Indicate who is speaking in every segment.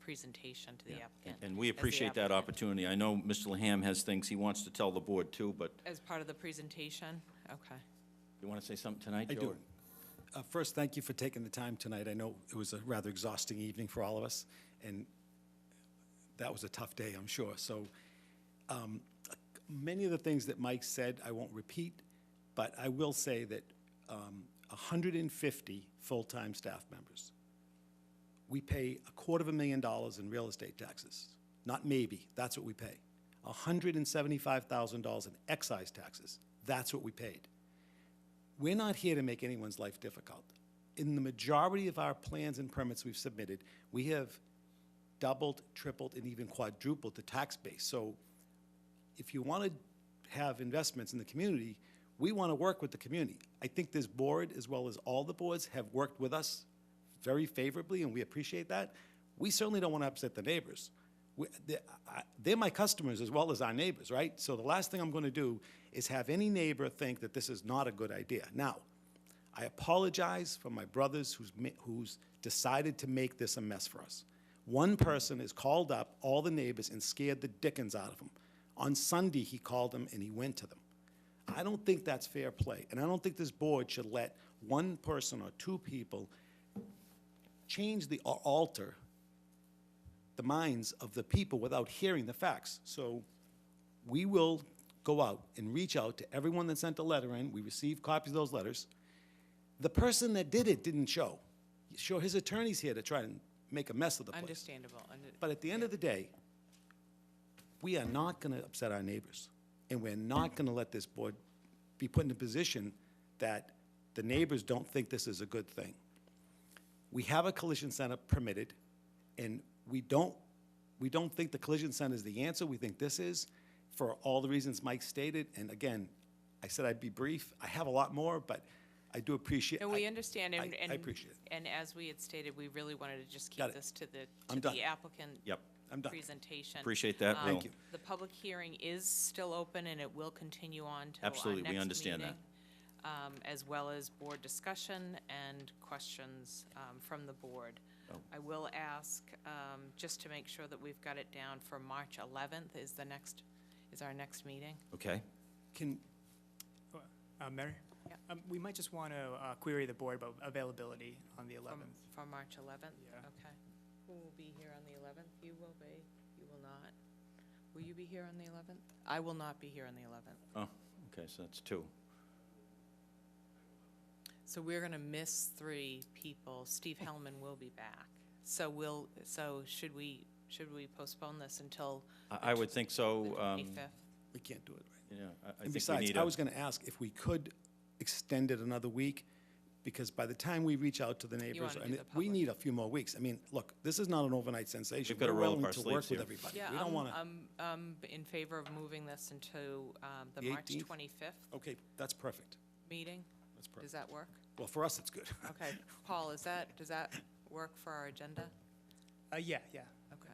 Speaker 1: presentation to the applicant.
Speaker 2: And we
Speaker 1: as the
Speaker 2: appreciate that
Speaker 1: applicant.
Speaker 2: opportunity. I know Mr. Laham has things he wants to tell the board too, but
Speaker 1: As part of the presentation? Okay.
Speaker 2: you want to say something tonight,
Speaker 3: I
Speaker 2: Joe?
Speaker 3: do. Uh, First, thank you for taking the time tonight. I know it was a rather exhausting evening for all of us, and that was a tough day, I'm sure. So um, many of the things that Mike said, I won't repeat, but I will say that um, 150 full-time staff members. We pay a quarter of a million dollars in real estate taxes. Not maybe, that's what we pay. $175,000 in excise taxes, that's what we paid. We're not here to make anyone's life difficult. In the majority of our plans and permits we've submitted, we have doubled, tripled, and even quadrupled the tax base. So if you want to have investments in the community, we want to work with the community. I think this board, as well as all the boards, have worked with us very favorably, and we appreciate that. We certainly don't want to upset the neighbors. We- they- I- They're my customers as well as our neighbors, right? So the last thing I'm going to do is have any neighbor think that this is not a good idea. Now, I apologize for my brothers who's, ma- who's decided to make this a mess for us. One person has called up all the neighbors and scared the dickens out of them. On Sunday, he called them and he went to them. I don't think that's fair play, and I don't think this board should let one person or two people change the, or alter the minds of the people without hearing the facts. So we will go out and reach out to everyone that sent a letter in. We received copies of those letters. The person that did it didn't show. Sure, his attorney's here to try and make a mess of the place.
Speaker 1: Understandable. Under-
Speaker 3: But at the end of the day, we are not going to upset our neighbors, and we're not going to let this board be put in a position that the neighbors don't think this is a good thing. We have a collision center permitted, and we don't, we don't think the collision center is the answer. We think this is, for all the reasons Mike stated. And again, I said I'd be brief. I have a lot more, but I do appreciate.
Speaker 1: No, we understand, and.
Speaker 3: I- I
Speaker 1: and-
Speaker 3: appreciate it.
Speaker 1: And as we had stated, we really wanted to just
Speaker 3: Got
Speaker 1: keep
Speaker 3: it.
Speaker 1: this to the,
Speaker 3: I'm
Speaker 1: to
Speaker 3: done.
Speaker 1: the applicant.
Speaker 2: Yep.
Speaker 3: I'm done.
Speaker 1: Presentation.
Speaker 2: Appreciate that,
Speaker 1: Um,
Speaker 2: Will. Thank
Speaker 3: you.
Speaker 1: The public hearing is still open, and it will continue on till our next
Speaker 2: Absolutely, we understand that.
Speaker 1: meeting, um, As well as board discussion and questions um, from the board.
Speaker 2: Oh.
Speaker 1: I will ask, um, just to make sure that we've got it down for March 11th is the next, is our next meeting.
Speaker 2: Okay.
Speaker 3: Can,
Speaker 4: Uh, Mary?
Speaker 1: Yeah.
Speaker 4: Um, We might just want to query the board about availability on the
Speaker 1: For-
Speaker 4: 11th.
Speaker 1: For March 11th?
Speaker 4: Yeah.
Speaker 1: Okay. Who will be here on the 11th? You will be, you will not. Will you be here on the 11th? I will not be here on the 11th.
Speaker 2: Oh, okay, so that's two.
Speaker 1: So we're going to miss three people. Steve Hellman will be back. So we'll, so should we, should we postpone this until
Speaker 2: I, I would think
Speaker 1: the
Speaker 2: so. um,
Speaker 1: 25th?
Speaker 3: we can't do it right
Speaker 2: Yeah, I- I
Speaker 3: And
Speaker 2: think we
Speaker 3: besides,
Speaker 2: need
Speaker 3: I
Speaker 2: a,
Speaker 3: was going to ask if we could extend it another week, because by the time we reach out to the neighbors,
Speaker 1: wanna do
Speaker 3: and
Speaker 1: the
Speaker 3: it- we
Speaker 1: public.
Speaker 3: need a few more weeks. I mean, look, this is not an overnight sensation.
Speaker 2: We've gotta
Speaker 3: We're
Speaker 2: roll up
Speaker 3: willing
Speaker 2: our
Speaker 3: to
Speaker 2: sleeves
Speaker 3: work with
Speaker 2: here.
Speaker 3: everybody.
Speaker 1: Yeah,
Speaker 3: We don't
Speaker 1: I'm-
Speaker 3: want to,
Speaker 1: I'm, I'm in favor of moving this into um, the
Speaker 3: The
Speaker 1: March
Speaker 3: 18th?
Speaker 1: 25th
Speaker 3: okay, that's perfect.
Speaker 1: meeting.
Speaker 3: That's
Speaker 1: Does
Speaker 3: perfect.
Speaker 1: that work?
Speaker 3: Well, for us, it's good.
Speaker 1: Okay. Paul, is that, does that work for our agenda?
Speaker 4: Uh, Yeah, yeah.
Speaker 1: Okay.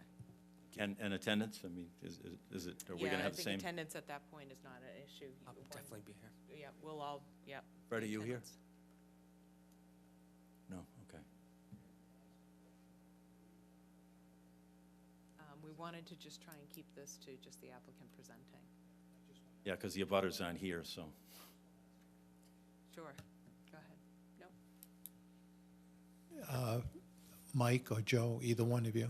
Speaker 2: and, and attendance, I mean, is, is- is it, are we
Speaker 1: Yeah,
Speaker 2: going to
Speaker 1: I
Speaker 2: have the
Speaker 1: think
Speaker 2: same?
Speaker 1: Attendance at that point is not an issue. I'll definitely be here. Yeah, we'll all, yeah.
Speaker 2: Fred, are you here?
Speaker 1: attendance.
Speaker 2: No, okay.
Speaker 1: Um, We wanted to just try and keep this to just the applicant presenting.
Speaker 2: Yeah, because the abutters aren't here, so.
Speaker 1: Sure, go ahead. No,
Speaker 5: Mike or Joe, either one of you,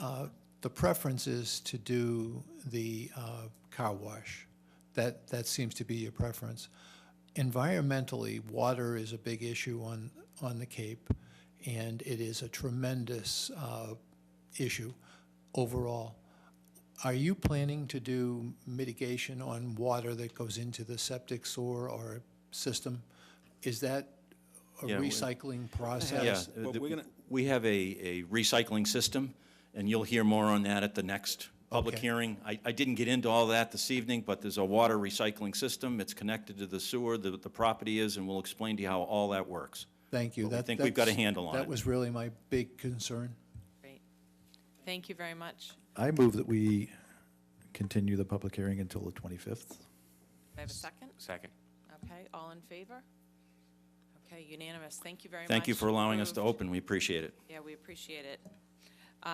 Speaker 5: uh, the preference is to do the uh, car wash. That, that seems to be your preference. Environmentally, water is a big issue on, on the Cape, and it is a tremendous uh, issue overall. Are you planning to do mitigation on water that goes into the septic sewer or system? Is that a
Speaker 2: Yeah, we-
Speaker 5: recycling
Speaker 2: Yeah,
Speaker 5: process?
Speaker 2: uh,
Speaker 3: But
Speaker 2: the-
Speaker 3: we're gonna-
Speaker 2: we have a, a recycling system, and you'll hear more on that at the next public
Speaker 5: Okay.
Speaker 2: hearing. I, I didn't get into all that this evening, but there's a water recycling system. It's connected to the sewer, the, the property is, and we'll explain to you how all that works.
Speaker 5: Thank you.
Speaker 2: But we
Speaker 5: That-
Speaker 2: think we've got a
Speaker 5: that's-
Speaker 2: handle on it.
Speaker 5: That was really my big concern.
Speaker 1: great. Thank you very much.
Speaker 6: I move that we continue the public hearing until the 25th.
Speaker 1: Do I have a second?
Speaker 7: Second.
Speaker 1: Okay, all in favor? Okay, unanimous. Thank you very much.
Speaker 2: Thank you for allowing us to
Speaker 1: Approved.
Speaker 2: open, we appreciate it.
Speaker 1: Yeah, we appreciate it.